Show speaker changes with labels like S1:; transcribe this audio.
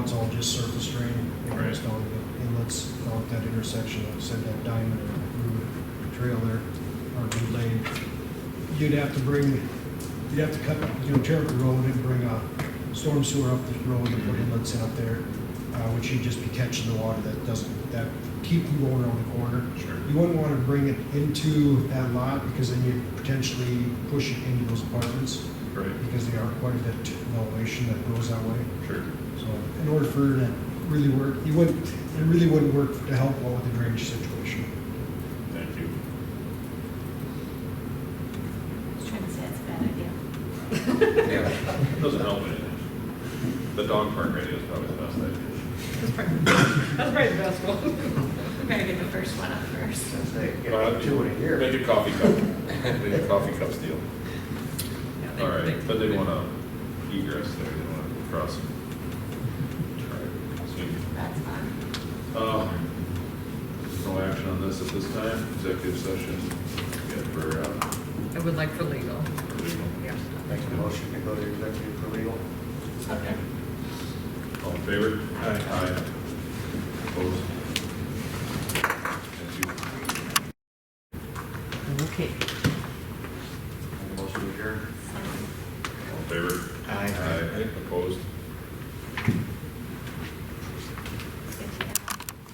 S1: just surface drain. You know,
S2: Right.
S1: Just down the inlets, out that intersection, like I said, that diamond or root trail there, or new lane. You'd have to bring, you'd have to cut, you know, Jericho Road and bring a storm sewer up the road and put inlets in up there, uh, which you'd just be catching the water that doesn't, that keep from going around the corner.
S2: Sure.
S1: You wouldn't want to bring it into that lot because then you'd potentially push it into those apartments
S2: Right,
S1: because they are quite a bit in elevation that goes that way.
S2: sure.
S1: So in order for that to really work, you wouldn't, it really wouldn't work to help out with the drainage situation.
S2: Thank you.
S3: Just trying to say it's a bad idea.
S4: Yeah,
S2: Doesn't help anything. The dog park idea is probably the best idea.
S3: That's probably, that's probably the best one. We better get the first one up first.
S4: I say,
S2: Well,
S4: get two in a year.
S2: Make a coffee cup, make a coffee cup deal. All right, but they want to egress there, they want to cross. it. All right, sweet.
S3: That's fun.
S2: Uh, No action on this at this time, executive session, yeah, for, uh,
S5: I would like for legal,
S2: for legal.
S5: yeah.
S4: Make the motion to go to executive for legal.
S3: Okay.
S2: All in favor? Aye. Aye. Opposed? Thank you.
S5: Okay.
S4: Make a motion to adjourn.
S2: All in favor?
S4: Aye.
S2: Opposed?